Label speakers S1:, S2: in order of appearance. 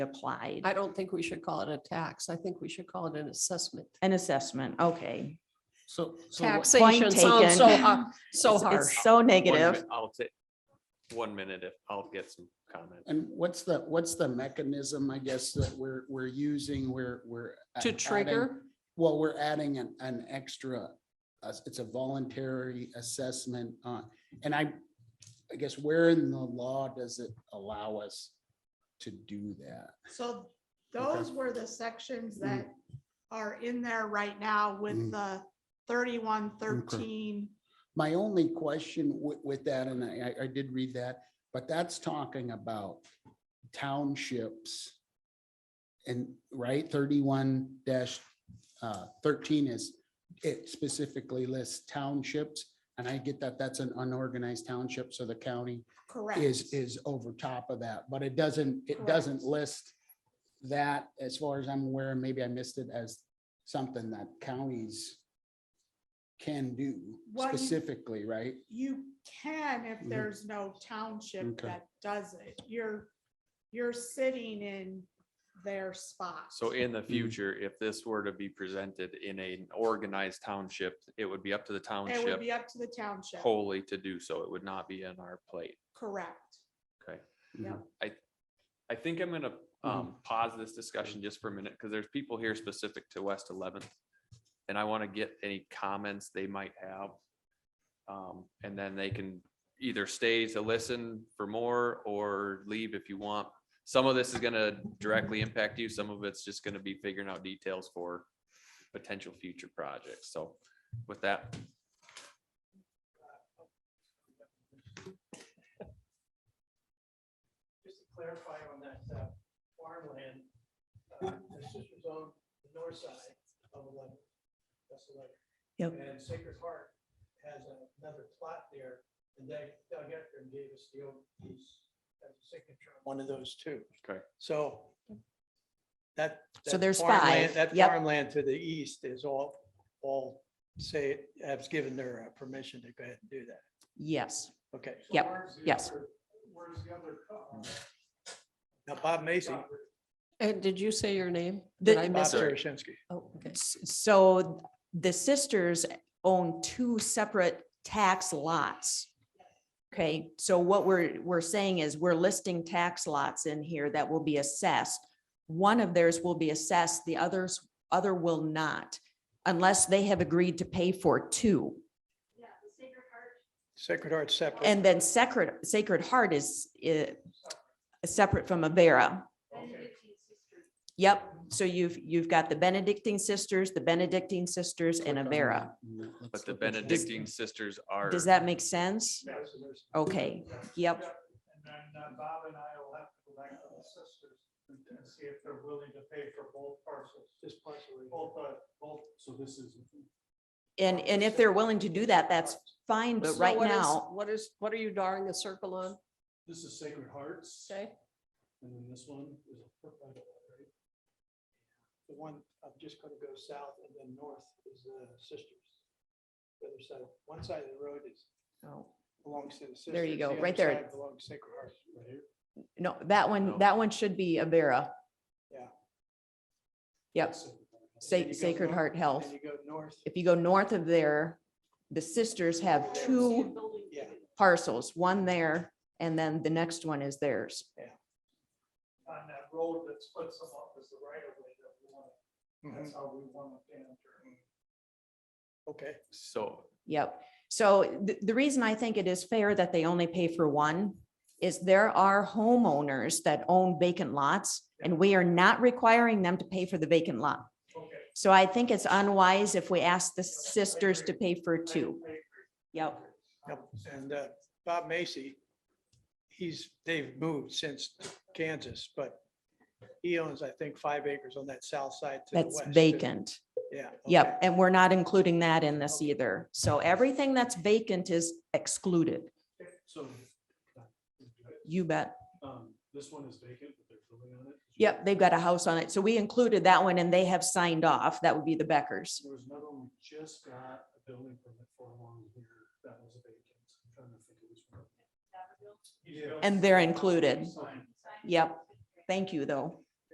S1: applied.
S2: I don't think we should call it a tax. I think we should call it an assessment.
S1: An assessment, okay.
S3: So. so what-
S2: Taxation sounds so,
S1: taken.
S2: har- so
S1: It's-
S2: harsh.
S1: It's so
S4: One minute,
S1: negative.
S4: I'll take one minute if I'll get some comment.
S3: And what's the, what's the mechanism, I guess, that we're, we're using, we're, we're. a-
S2: To
S3: adding-
S2: trigger,
S3: Well, we're adding an, an extra, uh, it's a voluntary assessment, uh, and I, I guess where in the law does it allow us to do that?
S5: So those were the sections that are in there right now
S3: Mm.
S5: with the thirty-one thirteen.
S3: My only question with, with that, and I, I- I did read that, but that's talking about townships. And, right, thirty-one dash, uh, thirteen is, it specifically lists townships. And I get that that's an unorganized township, so the county
S5: Correct.
S3: is, is over top of that, but it doesn't, it
S5: Correct.
S3: doesn't list that, as far as I'm aware, maybe I missed it as something that counties can do
S5: What you-
S3: specifically, right?
S5: You can if
S3: Mhm.
S5: there's no township
S3: Okay.
S5: that does it. You're, you're sitting in their spot.
S4: So in the future, if this were to be presented in an organized township, it would be up to the
S5: It would
S4: township
S5: be up to the township.
S4: wholly to do so. It would not be in our plate.
S5: Correct.
S4: Okay.
S5: Yeah.
S4: I think I'm gonna um pause this discussion just for a minute, because there's people here specific to West Eleventh. And I want to get any comments they might have. Um, and then they can either stay to listen for more or leave if you want. Some of this is gonna directly impact you, some of it's just gonna be figuring out details for potential future projects, so with that.
S6: just to clarify on that uh, farmland, uh, the sisters own the north side of eleven. That's eleven.
S1: Yep.
S6: And Sacred Heart has another plot there, and they, Doug Eckram gave us the old piece as a signature, on one of those two.
S4: Okay.
S6: So that.
S1: So
S6: that
S1: there's
S6: farmland-
S1: five,
S6: That
S1: yep.
S6: farmland to the east is all, all say, has given their uh, permission to go ahead and do that.
S1: Yes,
S6: Okay.
S1: Yep, yes.
S6: Where's the other? Now, Bob Macy.
S2: and did you say your name?
S1: The-
S2: Did I
S6: Bob
S2: miss it?
S4: Sorry.
S6: Saracensky.
S2: Oh, okay.
S1: S- so the sisters own two separate tax lots. Okay, so what we're, we're saying is we're listing tax lots in here that will be assessed. One of theirs will be assessed, the others, other will not, unless they have agreed to pay for two.
S6: Sacred Heart separate.
S1: And then Sacred, Sacred Heart is, i- separate from Avera. Yep, so you've, you've got the Benedictine sisters, the Benedictine sisters and Avera.
S4: But the Benedictine sisters are.
S1: Does that make sense?
S6: Yeah, so there's-
S1: Okay, yep,
S6: And then uh, Bob and I will have to go back to the sisters and see if they're willing to pay for both parcels. Just partially. Both, uh, both. So this is.
S1: and, and if they're willing to do that, that's fine, but
S2: So
S1: right
S2: what is-
S1: now,
S2: What is, what are you drawing a circle on?
S6: This is Sacred Hearts.
S2: Okay,
S6: And then this one is a foot right away, right? The one, I'm just gonna go south and then north is the sisters. The other side, one side of the road is,
S1: Oh,
S6: belongs to the sisters.
S1: There you go,
S6: the other
S1: right there.
S6: side Belongs to Sacred Heart. Right here.
S1: no, that one,
S4: No.
S1: that one should be Avera.
S6: Yeah.
S1: Yep, Sa-
S6: And then you go
S1: Sacred
S6: north-
S1: Heart
S6: and
S1: Health.
S6: Then you go north,
S1: if you go north of there, the sisters have two
S6: yeah.
S1: parcels, one there, and then the next one is theirs.
S6: on that road that splits them up is the right of way that we want, that's how we want to enter. Okay.
S4: So
S1: Yep. So the, the reason I think it is fair that they only pay for one is there are homeowners that own vacant lots and we are not requiring them to pay for the vacant lot.
S6: Okay.
S1: So I think it's unwise if we ask the sisters to pay for two. Yep.
S6: And uh, Bob Macy, he's, they've moved since Kansas, but he owns, I think, five acres on that south side to the west.
S1: That's
S6: too.
S1: vacant.
S6: Yeah.
S1: Yep.
S6: okay.
S1: And we're not including that in this
S6: Okay.
S1: either. So everything that's vacant is excluded.
S7: So,
S1: You bet.
S7: um, this one is vacant, but they're building on it.
S1: Yep. They've got a house on it. So we included that one and they have signed off. That would be the Beckers.
S7: There was another one, we just got a building permit for along here that was vacant. I'm trying to think of which one.
S1: And they're included. Yep. Thank you though.